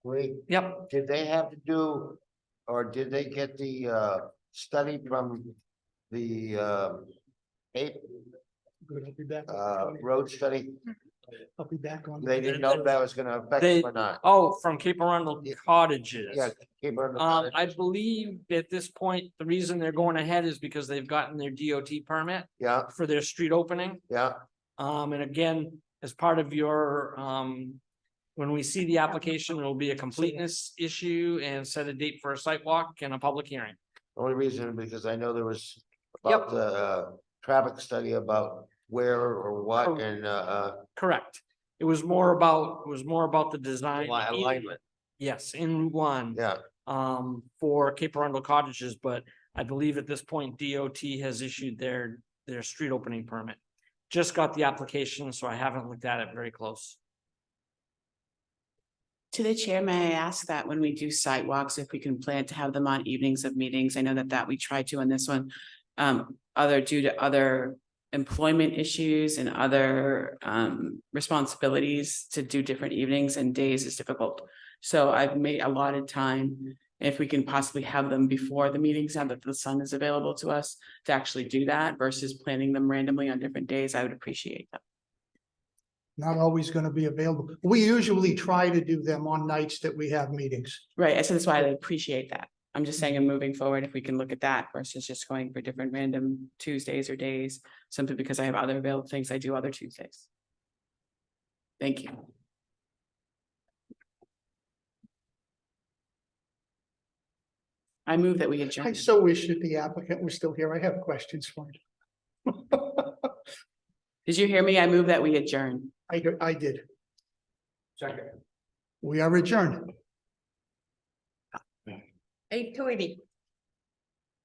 Wait, Yep, did they have to do, or did they get the uh study from the uh? Ape, Good, I'll be back. uh, road study, I'll be back on. they didn't know if that was gonna affect They- them or not. oh, from Cape Arundel Yeah. cottages. Yeah, keep on. the- Um, I believe at this point, the reason they're going ahead is because they've gotten their DOT permit Yeah, for their street opening. yeah, Um, and again, as part of your, um, when we see the application, it'll be a completeness issue and set a date for a site walk and a public hearing. only reason because I know there was Yep. about the uh traffic study about where or Oh. what and uh uh. Correct. It was more about, it was more about the design. li- Alignment, Yes, in Route One. yeah, um, for Cape Arundel cottages, but I believe at this point DOT has issued their, their street opening permit. Just got the application, so I haven't looked at it very close. To the chair, may I ask that when we do sidewalks, if we can plan to have them on evenings of meetings? I know that that we tried to on this one. Um, other due to other employment issues and other um responsibilities to do different evenings and days is difficult. So I've made a lot of time, if we can possibly have them before the meetings, now that the sun is available to us to actually do that versus planning them randomly on different days, I would appreciate that. Not always gonna be available. We usually try to do them on nights that we have meetings. Right, so that's why I appreciate that. I'm just saying, and moving forward, if we can look at that versus just going for different random Tuesdays or days, simply because I have other available things I do other Tuesdays. Thank you. I move that we I adjourn. so wish that the applicant was still here. I have questions for him. Did you hear me? I move that we adjourn. I, do- I did. Second. We are adjourned. Eight to eighty.